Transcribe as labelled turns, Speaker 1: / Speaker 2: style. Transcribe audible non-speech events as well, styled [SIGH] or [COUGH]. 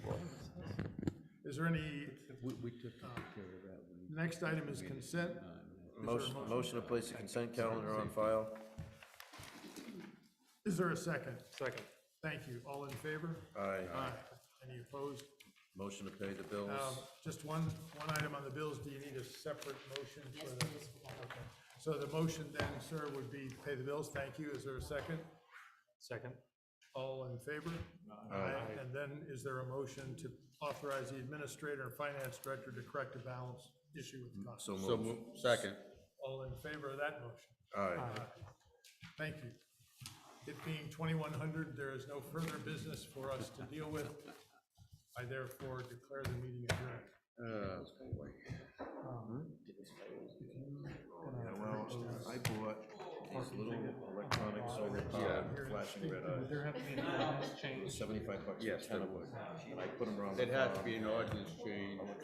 Speaker 1: Is there any, uh,
Speaker 2: We, we took care of that when.
Speaker 1: next item is consent?
Speaker 2: Uh,
Speaker 3: Motion, motion to place the consent calendar on file.
Speaker 1: Is there a second?
Speaker 4: Second.
Speaker 1: Thank you. All in favor?
Speaker 3: Aye.
Speaker 1: Aye. Any opposed?
Speaker 3: Motion to pay the bills.
Speaker 1: Um, Just one, one item on the bills. Do you need a separate motion? for
Speaker 5: Yes,
Speaker 1: the-
Speaker 5: please, we have it.
Speaker 1: So the motion then, sir, would be pay the bills. Thank you. Is there a second?
Speaker 4: Second.
Speaker 1: All in favor? Aye. And then is there a motion to authorize the administrator and finance director to correct a balance issue with the cost?
Speaker 3: Mm-hmm. So move. Second.
Speaker 1: All in favor of that motion?
Speaker 3: Aye.
Speaker 2: Um,
Speaker 1: Thank you. It being twenty-one hundred, there is no further business for us to deal with. I therefore declare the meeting adjourned.
Speaker 2: Uh, boy.
Speaker 3: Yeah, well, I bought these little electronic solar powered Uh, flashing red eyes,
Speaker 4: have to be an
Speaker 3: [LAUGHS]
Speaker 4: honest change
Speaker 3: seventy-five bucks a
Speaker 2: Yes,
Speaker 3: ton
Speaker 2: there
Speaker 3: of wood. And I put them around. the
Speaker 2: It has
Speaker 3: farm.
Speaker 2: to be an ordinance change.